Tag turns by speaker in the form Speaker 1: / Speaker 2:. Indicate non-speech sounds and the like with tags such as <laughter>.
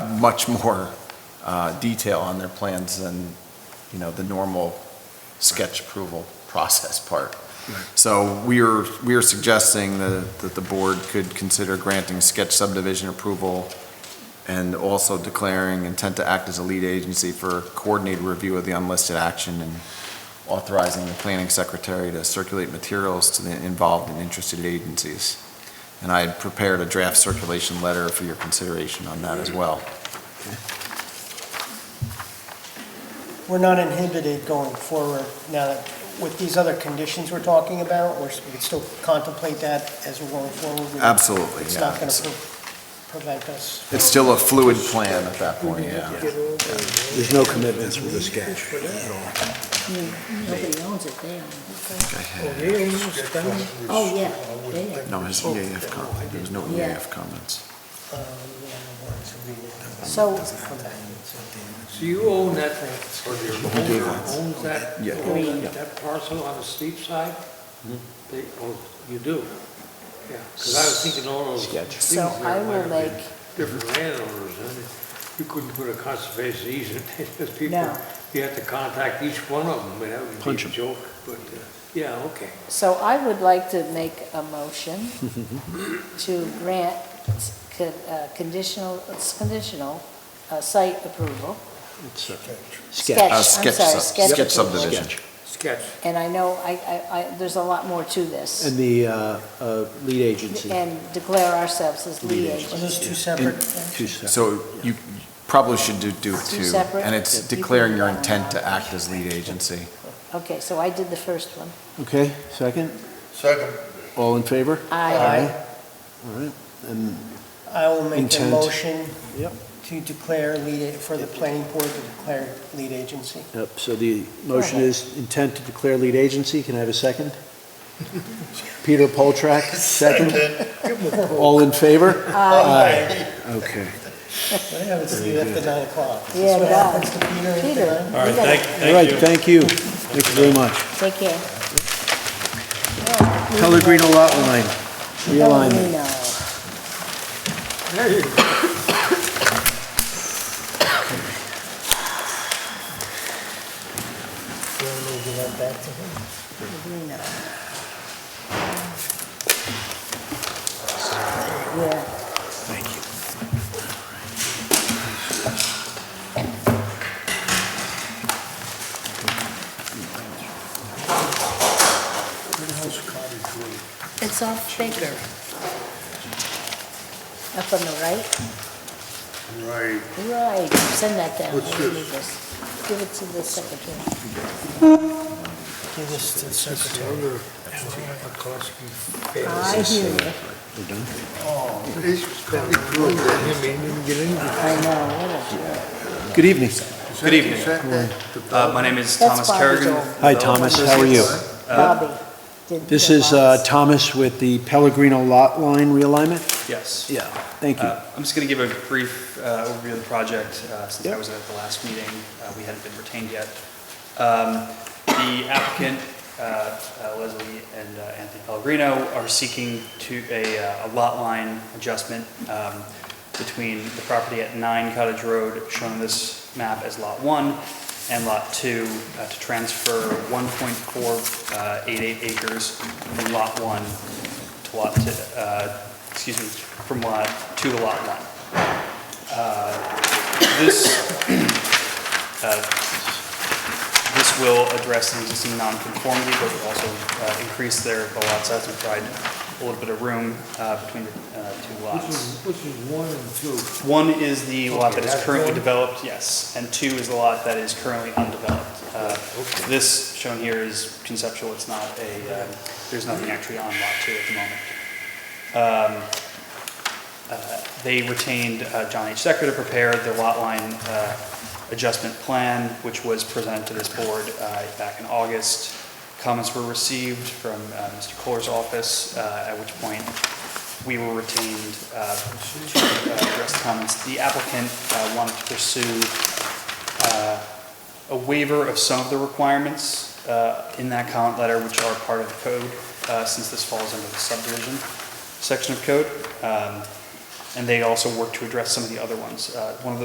Speaker 1: much more uh, detail on their plans than, you know, the normal sketch approval process part. So we are, we are suggesting that, that the board could consider granting sketch subdivision approval and also declaring intent to act as a lead agency for coordinated review of the unlisted action and authorizing the planning secretary to circulate materials to the involved and interested agencies. And I had prepared a draft circulation letter for your consideration on that as well.
Speaker 2: We're not inhibited going forward now that with these other conditions we're talking about, we're- we could still contemplate that as we're going forward. We-
Speaker 1: Absolutely,
Speaker 2: It's
Speaker 1: yeah.
Speaker 2: not going
Speaker 1: It's-
Speaker 2: to prevent us.
Speaker 1: It's still a fluid plan at that point, yeah.
Speaker 3: There's no commitments with the sketch at all.
Speaker 4: Nobody owns it, they own
Speaker 5: Yes.
Speaker 4: Oh, yeah, they are.
Speaker 1: No, his EAF comment, there was no
Speaker 4: Oh. Yeah.
Speaker 1: EAF comments.
Speaker 4: So-
Speaker 5: So you own that, or your owner owns that,
Speaker 1: Yeah. Yeah.
Speaker 5: owns
Speaker 1: Mm-hmm.
Speaker 5: that- that parcel on the steep side? They, oh, you do? Yeah, because I was thinking all those
Speaker 1: Sketch.
Speaker 5: things
Speaker 4: So
Speaker 5: there
Speaker 4: I
Speaker 5: might
Speaker 4: will
Speaker 5: have been
Speaker 4: make-
Speaker 5: different landowners, and you couldn't put a conservation easement, in, because people,
Speaker 4: No.
Speaker 5: you have to contact each one of them, and that would
Speaker 1: Punch
Speaker 5: be a
Speaker 1: 'em.
Speaker 5: joke, but, uh, yeah, okay.
Speaker 4: So I would like to make a motion to grant con- uh, conditional, it's conditional uh, site approval.
Speaker 1: Uh,
Speaker 4: Sketch, I'm
Speaker 1: sketch
Speaker 4: sorry,
Speaker 1: sub-
Speaker 4: sketch
Speaker 1: Sketch
Speaker 4: approval.
Speaker 1: subdivision.
Speaker 5: Sketch.
Speaker 4: And I know, I, I, I- there's a lot more to this,
Speaker 3: And the uh, uh, lead agency.
Speaker 4: and declare ourselves as lead
Speaker 2: Are
Speaker 4: agents.
Speaker 2: those two separate?
Speaker 3: Two separate.
Speaker 1: So you probably should do, do
Speaker 4: Two
Speaker 1: two.
Speaker 4: separate?
Speaker 1: And it's
Speaker 4: Yeah.
Speaker 1: declaring your intent to act as lead agency.
Speaker 4: Okay, so I did the first one.
Speaker 3: Okay, second?
Speaker 6: Second.
Speaker 3: All in favor?
Speaker 4: I,
Speaker 3: All right, and
Speaker 2: I will make a
Speaker 3: Intent.
Speaker 2: motion
Speaker 3: Yep.
Speaker 2: to declare lead, a- for the planning board to declare lead agency.
Speaker 3: Yep, so the motion is intent to declare lead agency, can I have a second? Peter Poltrak, second, all in favor?
Speaker 2: Aye.
Speaker 3: Okay.
Speaker 2: What happens if you left at nine o'clock? Is this
Speaker 4: Yeah,
Speaker 2: what
Speaker 4: God.
Speaker 2: happens to Peter at
Speaker 4: Peter.
Speaker 2: nine?
Speaker 4: All right,
Speaker 3: All right, thank you, thank you very much.
Speaker 4: Take care.
Speaker 3: Pellegrino lot line, realignment.
Speaker 4: Pellegrino.
Speaker 2: We'll give that back to him.
Speaker 4: Pellegrino. Yeah. It's off Baker. Up on the right?
Speaker 5: Right.
Speaker 4: Right, send that down.
Speaker 5: What's
Speaker 4: Let me
Speaker 5: this?
Speaker 4: read this. Give it to the secretary.
Speaker 2: Give this to the secretary.
Speaker 4: I hear you.
Speaker 5: This was probably cool, I mean, you get in.
Speaker 4: I know.
Speaker 3: Good evening.
Speaker 7: Good evening. Uh, My name is Thomas
Speaker 4: Bobby's
Speaker 7: Kerrigan.
Speaker 4: old.
Speaker 3: Hi, Thomas, how are you?
Speaker 4: Bobby. did
Speaker 3: This
Speaker 4: the
Speaker 3: is uh,
Speaker 4: lots.
Speaker 3: Thomas with the Pellegrino lot line realignment?
Speaker 7: Yes.
Speaker 3: Yeah. Thank you.
Speaker 7: Uh, I'm just going to give a brief uh, overview of the project uh, since I
Speaker 3: Yep.
Speaker 7: was at the last meeting. uh, We hadn't been retained yet. Um, The applicant, uh, uh, Leslie and uh, Anthony Pellegrino, are seeking to a uh, a lot line adjustment um, between the property at 9 Cottage Road, shown on this map as Lot 1, and Lot 2, uh, to transfer 1.488 uh, acres from Lot 1 to Lot, t- uh, excuse me, from Lot 2 to Lot 1. Uh, This <clears throat> uh, this will address an existing nonconformity, but will also uh, increase their the lot size and provide a little bit of room uh, between the uh, two
Speaker 5: Which
Speaker 7: lots.
Speaker 5: is, which is one and two.
Speaker 7: One is the lot that is
Speaker 5: that's
Speaker 7: currently
Speaker 5: one.
Speaker 7: developed, yes, and two is the lot that is currently undeveloped. Uh, This shown here is conceptual, it's not a, um, there's nothing actually on lot two at the moment. uh, They retained uh, John H. Decker to prepare the lot line uh, adjustment plan, which was presented to this board uh, back in August. Comments were received from uh, Mr. Kohler's office, uh, at which point we were retained uh, to uh, address the comments. The applicant uh, wanted to pursue uh, a waiver of some of the requirements uh, in that comment letter, which are part of the code, uh, since this falls under the subdivision section of code. Um, and they also work to address some of the other ones. Uh, One of the